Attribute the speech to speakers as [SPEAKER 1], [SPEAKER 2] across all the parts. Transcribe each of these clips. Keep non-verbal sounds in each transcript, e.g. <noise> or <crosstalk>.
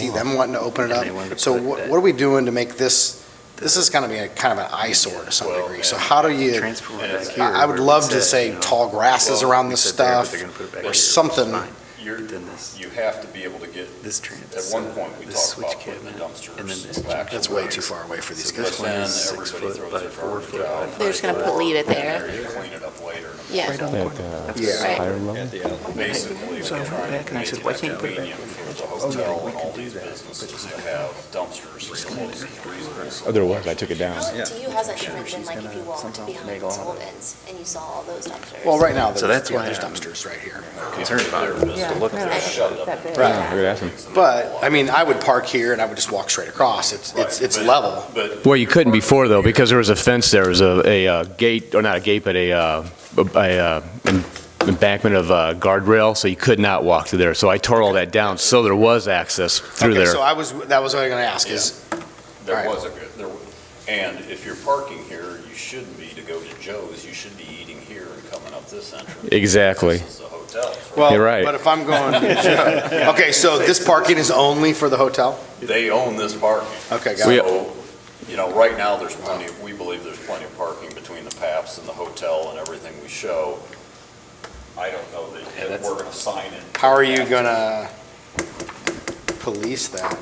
[SPEAKER 1] see them wanting to open it
[SPEAKER 2] Oh. they wanted to
[SPEAKER 1] up. So
[SPEAKER 2] put
[SPEAKER 1] what
[SPEAKER 2] that-
[SPEAKER 1] what are we doing to make this, this is going to be a kind of an eyesore to some
[SPEAKER 3] Well,
[SPEAKER 1] degree. So
[SPEAKER 3] and-
[SPEAKER 1] how do you,
[SPEAKER 2] Transform
[SPEAKER 3] and
[SPEAKER 2] it back
[SPEAKER 3] it's-
[SPEAKER 2] here.
[SPEAKER 1] Oh, I I would
[SPEAKER 2] where
[SPEAKER 1] love
[SPEAKER 2] it's
[SPEAKER 1] to
[SPEAKER 2] at,
[SPEAKER 1] say
[SPEAKER 2] you know.
[SPEAKER 1] tall grasses
[SPEAKER 2] Well,
[SPEAKER 1] around
[SPEAKER 2] we
[SPEAKER 1] this
[SPEAKER 2] said there, but
[SPEAKER 1] stuff.
[SPEAKER 2] they're gonna put it back
[SPEAKER 3] or
[SPEAKER 2] here.
[SPEAKER 1] something.
[SPEAKER 2] Fine.
[SPEAKER 3] You're,
[SPEAKER 2] Then this-
[SPEAKER 3] you have to be able to get,
[SPEAKER 2] This trans.
[SPEAKER 3] at one point, we
[SPEAKER 2] this
[SPEAKER 3] talked
[SPEAKER 2] switch
[SPEAKER 3] about putting the
[SPEAKER 2] cabinet, and then this
[SPEAKER 3] dumpsters back.
[SPEAKER 1] That's way too far away for these
[SPEAKER 2] So
[SPEAKER 1] guys.
[SPEAKER 2] this
[SPEAKER 3] But
[SPEAKER 2] one
[SPEAKER 3] then
[SPEAKER 2] is six
[SPEAKER 3] everybody
[SPEAKER 2] foot
[SPEAKER 3] throws
[SPEAKER 2] by
[SPEAKER 3] their
[SPEAKER 2] four
[SPEAKER 3] garbage
[SPEAKER 2] foot.
[SPEAKER 3] out.
[SPEAKER 2] by
[SPEAKER 3] They're
[SPEAKER 2] five
[SPEAKER 4] They're just gonna
[SPEAKER 2] foot.
[SPEAKER 4] put- leave it there.
[SPEAKER 3] and Clean it up later.
[SPEAKER 4] Yeah.
[SPEAKER 2] Right on the
[SPEAKER 5] At
[SPEAKER 2] corner.
[SPEAKER 5] uh,
[SPEAKER 2] That's
[SPEAKER 1] Yeah.
[SPEAKER 2] right.
[SPEAKER 5] Iron Mountain?
[SPEAKER 3] Basically,
[SPEAKER 2] So I
[SPEAKER 3] they're
[SPEAKER 2] went back
[SPEAKER 3] trying to
[SPEAKER 2] and I
[SPEAKER 3] make
[SPEAKER 2] said,
[SPEAKER 3] it
[SPEAKER 2] why can't you put it back?
[SPEAKER 3] convenient for
[SPEAKER 2] Oh,
[SPEAKER 3] the
[SPEAKER 2] yeah,
[SPEAKER 3] hotel
[SPEAKER 2] we
[SPEAKER 3] and all
[SPEAKER 2] could do
[SPEAKER 3] these
[SPEAKER 2] that.
[SPEAKER 3] businesses to have dumpsters close at reasonable.
[SPEAKER 5] Oh, there was, I took it down.
[SPEAKER 6] How to you has that different
[SPEAKER 2] She's
[SPEAKER 6] than like if you
[SPEAKER 2] gonna
[SPEAKER 6] walked
[SPEAKER 2] somehow
[SPEAKER 6] behind
[SPEAKER 2] make all of it.
[SPEAKER 6] Sullivan's and you saw all those dumpsters?
[SPEAKER 1] Well, right now,
[SPEAKER 2] So
[SPEAKER 1] there's
[SPEAKER 2] that's
[SPEAKER 1] yeah,
[SPEAKER 2] why
[SPEAKER 1] there's
[SPEAKER 2] I'm-
[SPEAKER 1] dumpsters right here.
[SPEAKER 2] Concerned about it.
[SPEAKER 7] Yeah,
[SPEAKER 2] So look
[SPEAKER 7] no,
[SPEAKER 2] at
[SPEAKER 7] no,
[SPEAKER 2] that.
[SPEAKER 7] it's
[SPEAKER 3] shut up.
[SPEAKER 7] that big.
[SPEAKER 5] Right, I could ask him.
[SPEAKER 1] But, I mean, I would park here and I would just walk straight across. It's, it's,
[SPEAKER 3] Right,
[SPEAKER 1] it's
[SPEAKER 3] but-
[SPEAKER 1] level.
[SPEAKER 3] But.
[SPEAKER 8] Well, you couldn't before though, because there was a fence, there was a, a uh, gate, or not a gate, but a, uh, a, uh, em- embankment of uh, guardrail, so you could not walk through there. So I tore all that down, so there was access through
[SPEAKER 1] Okay,
[SPEAKER 8] there.
[SPEAKER 1] So I was, that was what I was going to ask is,
[SPEAKER 3] There
[SPEAKER 1] Right.
[SPEAKER 3] was a good, there, wa- and if you're parking here, you shouldn't be to go to Joe's, you should be eating here and coming up this entrance.
[SPEAKER 8] Exactly.
[SPEAKER 3] This is the hotel.
[SPEAKER 1] well,
[SPEAKER 8] You're right.
[SPEAKER 1] but if I'm
[SPEAKER 2] <laughs>
[SPEAKER 1] going, <laughs> okay, so this parking is only for the hotel?
[SPEAKER 3] They own this parking.
[SPEAKER 1] Okay, got it.
[SPEAKER 3] So, you know, right now, there's plenty, of- we believe there's plenty of parking between the PAPS and the hotel and everything we show. I don't know that, that we're gonna sign it.
[SPEAKER 1] How are you going to police that?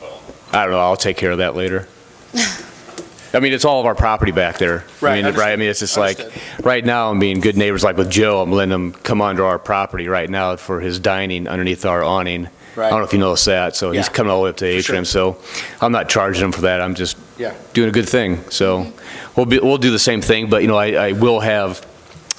[SPEAKER 3] Well,
[SPEAKER 8] I don't know, I'll take care of that later.
[SPEAKER 1] <laughs>
[SPEAKER 8] I mean, it's all of our property back there.
[SPEAKER 1] Right,
[SPEAKER 8] I mean, right, I
[SPEAKER 1] understood,
[SPEAKER 8] mean, it's just like,
[SPEAKER 1] understood.
[SPEAKER 8] right now, I'm being good neighbors, like with Joe, I'm letting him come onto our property right now for his dining underneath our awning. I don't know if you noticed that, so he's
[SPEAKER 1] Yeah.
[SPEAKER 8] coming all the way up to the
[SPEAKER 1] For sure.
[SPEAKER 8] atrium, so I'm not charging him for that, I'm just
[SPEAKER 1] Yeah.
[SPEAKER 8] doing a good thing, so we'll be, we'll do the same thing, but, you know, I, I will have,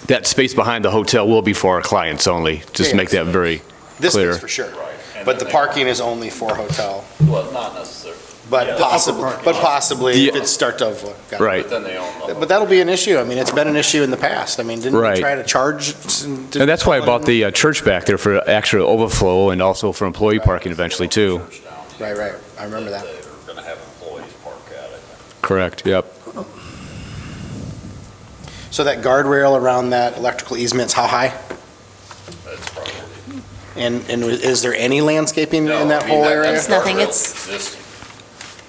[SPEAKER 8] that space behind the hotel will be for our clients only, just
[SPEAKER 1] Yeah.
[SPEAKER 8] to make that very,
[SPEAKER 1] This
[SPEAKER 8] Clear.
[SPEAKER 1] is for sure.
[SPEAKER 3] right. And
[SPEAKER 1] But the
[SPEAKER 3] then they-
[SPEAKER 1] parking is only for hotel,
[SPEAKER 3] Well, not necessarily, Yeah,
[SPEAKER 1] but
[SPEAKER 3] the upper
[SPEAKER 1] possibly,
[SPEAKER 3] parking
[SPEAKER 1] but
[SPEAKER 3] lot.
[SPEAKER 1] possibly if
[SPEAKER 8] Yeah.
[SPEAKER 1] it's start to overflow. Got it.
[SPEAKER 8] right.
[SPEAKER 3] but then they own the hotel.
[SPEAKER 1] But that'll be an issue. I mean, it's been an issue in the past. I mean, didn't
[SPEAKER 8] Right.
[SPEAKER 1] we try to charge? some-
[SPEAKER 8] And that's why I bought the uh, church back there for extra overflow and also for employee parking eventually too.
[SPEAKER 3] Church down here
[SPEAKER 1] Right, right. I remember that.
[SPEAKER 3] They're gonna have employees park at it.
[SPEAKER 8] Correct, yep.
[SPEAKER 1] So that guardrail around that electrical easement's how high?
[SPEAKER 3] That's probably.
[SPEAKER 1] And, and is there any landscaping
[SPEAKER 3] No,
[SPEAKER 1] in that
[SPEAKER 3] I mean,
[SPEAKER 1] whole
[SPEAKER 3] that-
[SPEAKER 1] area?
[SPEAKER 3] that
[SPEAKER 4] It's nothing,
[SPEAKER 3] guardrail
[SPEAKER 4] it's-
[SPEAKER 3] existing.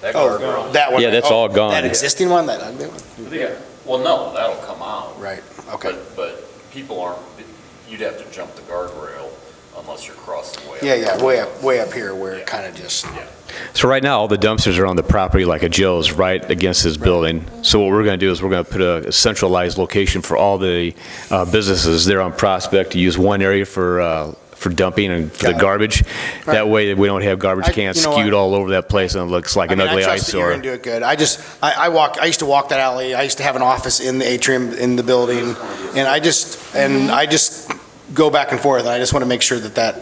[SPEAKER 3] That guardrail.
[SPEAKER 1] Oh, that one.
[SPEAKER 5] Yeah, that's
[SPEAKER 1] Oh,
[SPEAKER 5] all gone.
[SPEAKER 1] That existing one, that ugly one?
[SPEAKER 3] Well, no, that'll come out.
[SPEAKER 1] Right, okay.
[SPEAKER 3] But, but people aren't, you'd have to jump the guardrail unless you're crossing way up.
[SPEAKER 1] Yeah, yeah, way up, way up here where it kind of just,
[SPEAKER 8] So right now, all the dumpsters are on the property like a Joe's, right against his building. So what we're going to do is we're going to put a centralized location for all the uh, businesses there on Prospect to use one area for, uh, for dumping and for the
[SPEAKER 1] Got it.
[SPEAKER 8] garbage. That
[SPEAKER 1] Right.
[SPEAKER 8] way we don't have
[SPEAKER 1] I-
[SPEAKER 8] garbage cans
[SPEAKER 1] you know what?
[SPEAKER 8] skewed all over that place and it looks like
[SPEAKER 1] I
[SPEAKER 8] an
[SPEAKER 1] mean, I
[SPEAKER 8] ugly
[SPEAKER 1] trust that you're
[SPEAKER 8] eyesore.
[SPEAKER 1] gonna do it good. I just, I, I walk, I used to walk that alley, I used to have an office in the atrium, in the building, and I just, and I just go back and forth, and I just want to make sure that that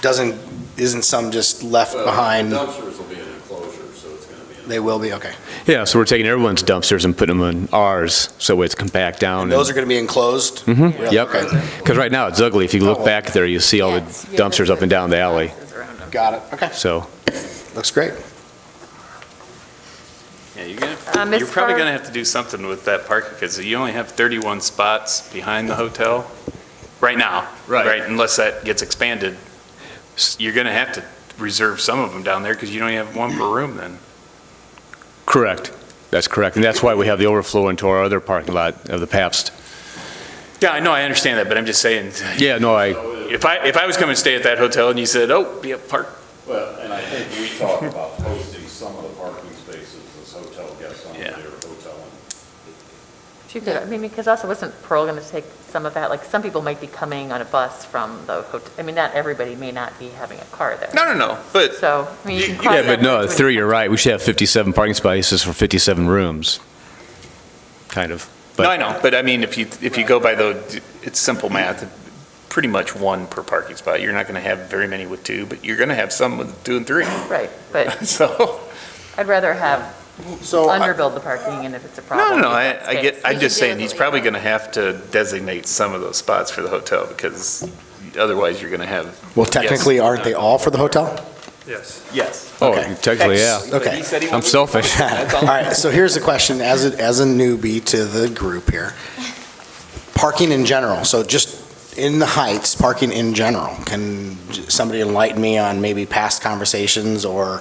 [SPEAKER 1] doesn't, isn't some just left behind,
[SPEAKER 3] Dumpsters will be an enclosure, so it's gonna be.
[SPEAKER 1] they will be, okay.
[SPEAKER 8] Yeah, so we're taking everyone's dumpsters and putting them in ours, so it's compact down.
[SPEAKER 1] And
[SPEAKER 8] and-
[SPEAKER 1] those are going to be enclosed?
[SPEAKER 8] Mhm,
[SPEAKER 1] Really?
[SPEAKER 8] Oh, yep.
[SPEAKER 1] Okay.
[SPEAKER 8] Because right now, it's ugly. If you
[SPEAKER 1] Oh,
[SPEAKER 8] look
[SPEAKER 1] well.
[SPEAKER 8] back there, you see all the
[SPEAKER 7] Yes, yeah,
[SPEAKER 8] dumpsters up and down the alley,
[SPEAKER 7] dumpsters around 'em.
[SPEAKER 1] Got it, okay,
[SPEAKER 8] so.
[SPEAKER 1] looks great.
[SPEAKER 9] Yeah, you're gonna,
[SPEAKER 7] Um, as
[SPEAKER 9] you're probably
[SPEAKER 7] far-
[SPEAKER 9] gonna have to do something with that parking, because you only have 31 spots behind the hotel, right now.
[SPEAKER 8] Right.
[SPEAKER 9] unless that gets expanded, S- you're gonna have to reserve some of them down there, because you don't have one per room then.
[SPEAKER 8] Correct. That's correct. And that's why we have the overflow into our other parking lot of the Pabst.
[SPEAKER 9] Yeah, I know, I understand that, but I'm just saying,
[SPEAKER 8] Yeah, no, I,
[SPEAKER 9] if I, if I was coming to stay at that hotel and you said, oh, be a park,
[SPEAKER 3] Well, and I think we talked about posting some of the parking spaces as hotel guests on their
[SPEAKER 9] Yeah.
[SPEAKER 3] hotel.
[SPEAKER 7] She could, I mean, because also, wasn't Pearl going to take some of that? Like, some people might be coming on a bus from the hotel. I mean, not everybody may not be having a car there.
[SPEAKER 9] no, no, no, but
[SPEAKER 7] So, I mean, you
[SPEAKER 9] You-
[SPEAKER 7] can
[SPEAKER 9] you-
[SPEAKER 7] cross
[SPEAKER 8] yeah,
[SPEAKER 7] that
[SPEAKER 8] but no, in
[SPEAKER 7] bridge when-
[SPEAKER 8] theory, you're right. We should have 57 parking spaces for 57 rooms, kind of. But-
[SPEAKER 9] No, I know, but I mean, if you, if you go by the, it's simple math, pretty much one per parking spot. You're not going to have very many with two, but you're going to have some with two and three, <laughs>
[SPEAKER 7] Right, but
[SPEAKER 9] so.
[SPEAKER 7] I'd rather have
[SPEAKER 1] So, I-
[SPEAKER 7] underbuild the parking, and if it's a problem.
[SPEAKER 9] Oh, No, no,
[SPEAKER 7] we've
[SPEAKER 9] I,
[SPEAKER 7] got
[SPEAKER 9] I
[SPEAKER 6] We
[SPEAKER 9] get, I'm
[SPEAKER 7] space.
[SPEAKER 9] just
[SPEAKER 6] can do
[SPEAKER 9] saying,
[SPEAKER 6] it
[SPEAKER 9] he's
[SPEAKER 6] later.
[SPEAKER 9] probably going to have to designate some of those spots for the hotel, because otherwise you're going to have.
[SPEAKER 1] well, technically, aren't they all for the hotel?
[SPEAKER 9] Yes.
[SPEAKER 8] Oh,
[SPEAKER 1] okay.
[SPEAKER 8] technically, yeah.
[SPEAKER 1] Okay.
[SPEAKER 8] I'm selfish.
[SPEAKER 1] <laughs> All right, so here's the question, as a, as a newbie to the group here. Parking in general, so just in the Heights, parking in general? Can j- somebody enlighten me on maybe past conversations or